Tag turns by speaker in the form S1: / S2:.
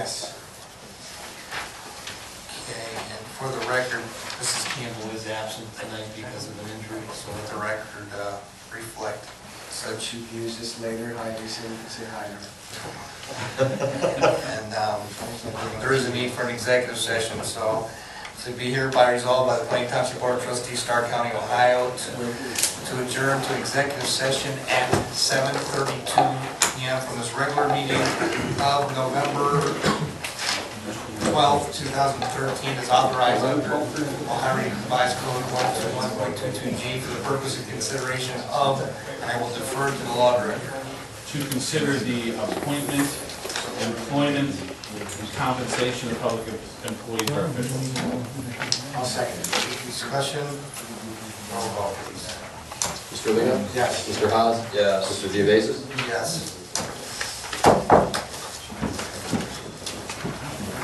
S1: For the record, Mrs. Campbell is absent tonight because of an injury, so let the record uh, reflect
S2: So
S1: such.
S2: she views this later, hi, you say, say hi to her.
S1: And um, there is a need for an executive session, so to be hereby resolved by the Plain Township Board of Trustees, Stark County, Ohio, to- to adjourn to executive session at 7:32 PM from this regular meeting of November 12, 2013 is authorized under Ohio Revised Code 121.22G for the purpose of consideration of, and I will defer to the law director.
S3: to consider the appointment, employment, and compensation of public employees or officials.
S1: I'll second it. Discussion? Roll call, please.
S4: Mr. Lino?
S1: Yes.
S4: Mr. Haas? Yes. Mr. Geovasis?
S1: Yes.